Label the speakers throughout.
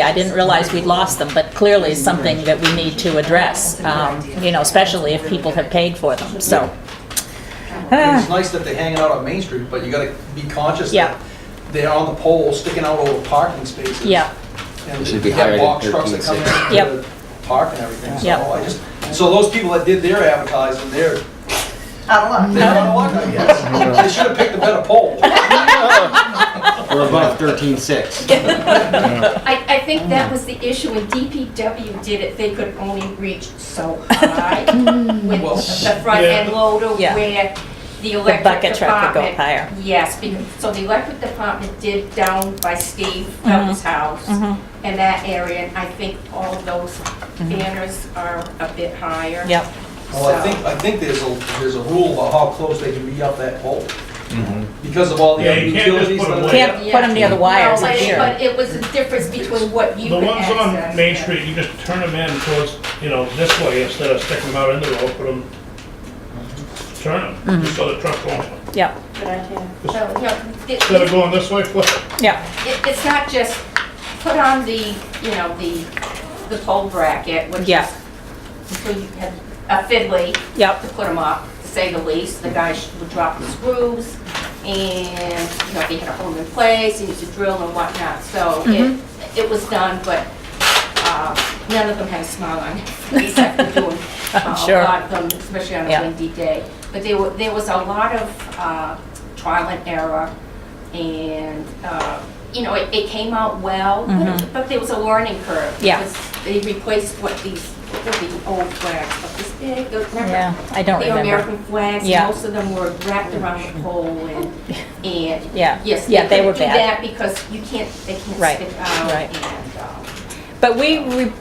Speaker 1: I didn't realize we'd lost them, but clearly it's something that we need to address, um, you know, especially if people have paid for them, so. Ah.
Speaker 2: And It's nice that they're hanging out on Main Street, but you gotta be conscious
Speaker 1: Yeah.
Speaker 2: that they're on the pole sticking out over parking spaces.
Speaker 1: Yeah,
Speaker 2: And
Speaker 3: They
Speaker 2: you
Speaker 3: should be higher
Speaker 2: got
Speaker 3: than
Speaker 2: box trucks that come
Speaker 3: 13,
Speaker 1: Yep.
Speaker 2: in to park and everything, so
Speaker 1: Yep.
Speaker 2: I just, so those people that did their advertising, they're,
Speaker 4: Out of
Speaker 2: they're
Speaker 4: luck.
Speaker 2: out of luck, I guess. They should've picked a better pole.
Speaker 3: We're above thirteen six.
Speaker 5: I, I think
Speaker 1: Mm.
Speaker 5: that was the issue when DPW did it, they could only reach so high with
Speaker 2: Well-
Speaker 5: the front end loader
Speaker 1: Mm. Yeah.
Speaker 5: where the
Speaker 1: the
Speaker 5: electric
Speaker 1: bucket truck could go
Speaker 5: department.
Speaker 1: higher.
Speaker 5: Yes, because, so the electric department did down by Steve
Speaker 1: Mm-hmm.
Speaker 5: Felton's house
Speaker 1: Mhm.
Speaker 5: in that area, and I think all those banners are a bit higher.
Speaker 1: Mm-hmm. Yep,
Speaker 2: Well,
Speaker 6: Oh,
Speaker 2: I think, I think there's a, there's a rule about how close they can be up that pole. Because of all the
Speaker 6: Mm-hmm. Yeah,
Speaker 2: other
Speaker 6: you can't just
Speaker 2: utilities. that
Speaker 6: put them
Speaker 2: are-
Speaker 6: way up.
Speaker 1: can't put them near the wires,
Speaker 5: No,
Speaker 1: I'm
Speaker 5: but it-
Speaker 1: sure.
Speaker 5: But it was the difference between what you
Speaker 6: The
Speaker 5: could
Speaker 6: ones
Speaker 5: access.
Speaker 6: on Main
Speaker 5: yeah.
Speaker 6: Street, you just turn them in towards, you know, this way instead of sticking them out in the road, put them, turn them, just so the truck won't,
Speaker 1: yep,
Speaker 5: So, you know, it-
Speaker 6: instead of going this way, flip it.
Speaker 1: yep,
Speaker 5: it, it's not just put on the, you know, the, the pole bracket, which
Speaker 1: Yeah.
Speaker 5: is, so you have a fiddly
Speaker 1: yep.
Speaker 5: to put them up, to say the least. The guys would drop the screws and, you know, they had a hole in place, and you could drill and whatnot. So
Speaker 1: Mhm.
Speaker 5: it, it was done, but, uh, none of them had a smile on their face after doing.
Speaker 1: I'm
Speaker 5: uh,
Speaker 1: sure.
Speaker 5: A lot of them, especially on a
Speaker 1: Yeah.
Speaker 5: windy day. But there were, there was a lot of, uh, trial and error and, uh, you know, it, it came out well, but it- but there was a learning curve.
Speaker 1: Mm-hmm. Yeah.
Speaker 5: because They replaced what these, what were the old flags, but this big, remember?
Speaker 1: Yeah, I don't
Speaker 5: The
Speaker 1: remember.
Speaker 5: American flags,
Speaker 1: Yeah.
Speaker 5: most of them were wrapped around the pole and, and,
Speaker 1: Yeah.
Speaker 5: yes,
Speaker 1: Yeah,
Speaker 5: they
Speaker 1: they were
Speaker 5: couldn't do
Speaker 1: bad.
Speaker 5: that because you can't, they
Speaker 1: Right,
Speaker 5: can't stick out
Speaker 1: right.
Speaker 5: and, um,
Speaker 1: But we, re-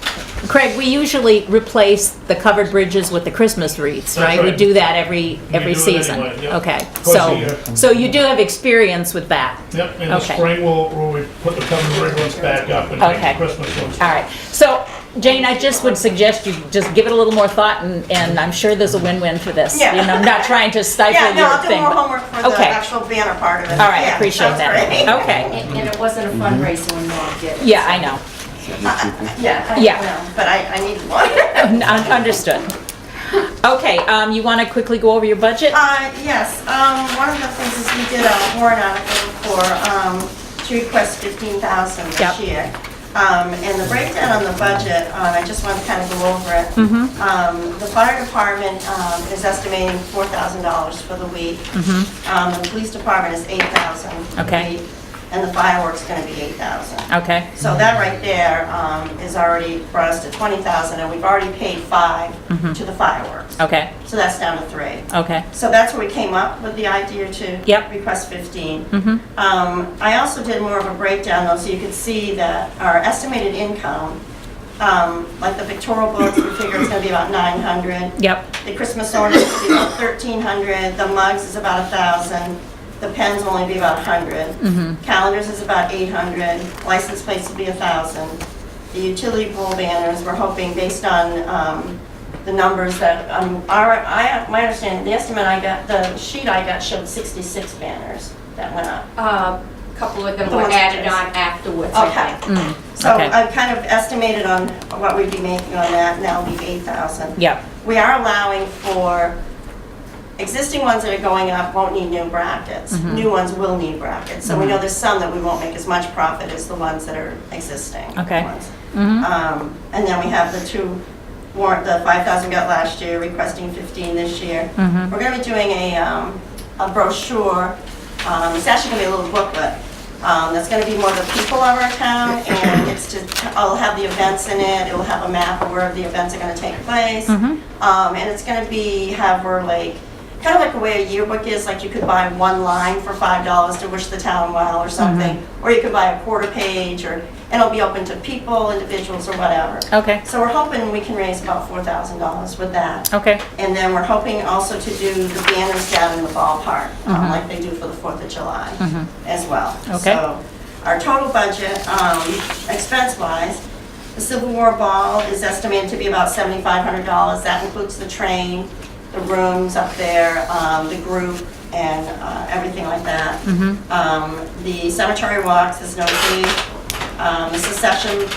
Speaker 1: Craig, we usually replace the covered bridges with the Christmas wreaths,
Speaker 6: That's
Speaker 1: right? We
Speaker 6: right.
Speaker 1: do that every, every
Speaker 6: do it
Speaker 1: season.
Speaker 6: anyway, yeah.
Speaker 1: Okay,
Speaker 6: Twice a year.
Speaker 1: so, so you do have experience with that?
Speaker 6: Yep, in the
Speaker 1: Okay.
Speaker 6: spring, we'll, we'll we put the covered bridge ones back up and make
Speaker 1: Okay.
Speaker 6: the Christmas ones.
Speaker 1: All right, so Jane, I just would suggest you just give it a little more thought and, and I'm sure there's a win-win for this.
Speaker 4: Yeah.
Speaker 1: You know, I'm not trying to stifle
Speaker 4: Yeah,
Speaker 1: your thing.
Speaker 4: no, I'll do more
Speaker 1: but-
Speaker 4: homework for the
Speaker 1: Okay.
Speaker 4: actual banner part of it.
Speaker 1: All right, I
Speaker 4: Yeah,
Speaker 1: appreciate
Speaker 4: sounds great.
Speaker 1: that. Okay,
Speaker 5: and and it wasn't a fundraiser when Norm did it.
Speaker 1: yeah, I know,
Speaker 4: Yeah,
Speaker 5: I-
Speaker 1: Yeah.
Speaker 5: well,
Speaker 4: but I, I need one.
Speaker 1: Un- understood. Okay, um, you want to quickly go over your budget?
Speaker 4: Uh, yes, um, one of the things is we did a warrant article for, um, to request fifteen thousand
Speaker 1: Yep.
Speaker 4: this year. Um, and the breakdown on the budget, um, I just want to kind of go over it.
Speaker 1: Mm-hmm.
Speaker 4: Um, the fire department, um, is estimating four thousand dollars for the week. Um, the police department is eight thousand.
Speaker 1: Mm-hmm. Okay.
Speaker 4: And the fireworks gonna be eight thousand.
Speaker 1: Okay,
Speaker 4: So that right there um, is already brought us to 20,000, and we've already paid five to the fireworks.
Speaker 1: Mm-hmm. okay,
Speaker 4: So that's down to three.
Speaker 1: okay,
Speaker 4: So that's where we came up with the idea to
Speaker 1: Yep. Mm-hmm.
Speaker 4: request 15. Um, I also did more of a breakdown though, so you could see that our estimated income, um, like the pictorial books, we figure it's going to be about 900.
Speaker 1: yep,
Speaker 4: The Christmas ornaments will be about thirteen hundred, the mugs is about a thousand, the pens will only be about a hundred. Calendars is about eight hundred, license plates will be a thousand. The utility pole banners, we're hoping, based on, um, the numbers that, um, our, I, my understanding, the estimate I got, the sheet I got showed sixty-six banners that went up.
Speaker 5: Uh, a couple of them
Speaker 4: The
Speaker 5: were
Speaker 4: ones
Speaker 5: added
Speaker 4: that-
Speaker 5: on afterwards, I
Speaker 4: Okay.
Speaker 5: think.
Speaker 1: mm,
Speaker 4: So uh,
Speaker 1: Okay.
Speaker 4: I've kind of estimated on what we'd be making on that, and that'll be eight thousand.
Speaker 1: yep,
Speaker 4: we are allowing for, existing ones that are going up won't need new brackets. New ones will need brackets. So we know there's some that we won't make as much profit as the ones that are existing.
Speaker 1: Okay.
Speaker 4: ones.
Speaker 1: Mhm.
Speaker 4: Um, And then we have the two warrant, the 5,000 got last year, requesting 15 this year. We're going to be doing a um, a brochure, um, it's actually going to be a little booklet, um, that's going to be more the people of our town, and it's to, it'll have the events in it, it'll have a map of where the events are going to take place. Um, And it's going to be, have where like, kind of like the way a yearbook is, like you could buy one line for $5 to wish the town well or something, or you could buy a quarter page, or, and it'll be open to people, individuals, or whatever.
Speaker 1: okay,
Speaker 4: So we're hoping we can raise about $4,000 with that.
Speaker 1: okay,
Speaker 4: And then we're hoping also to do the banners down in the ballpark, um, like they do for the Fourth of July as well.
Speaker 1: Okay.
Speaker 4: So our total budget, um, expense-wise, the Civil War Ball is estimated to be about $7,500. That includes the train, the rooms up there, um, the group, and uh, everything like that. Um, The cemetery walks is no fee. Um, The secession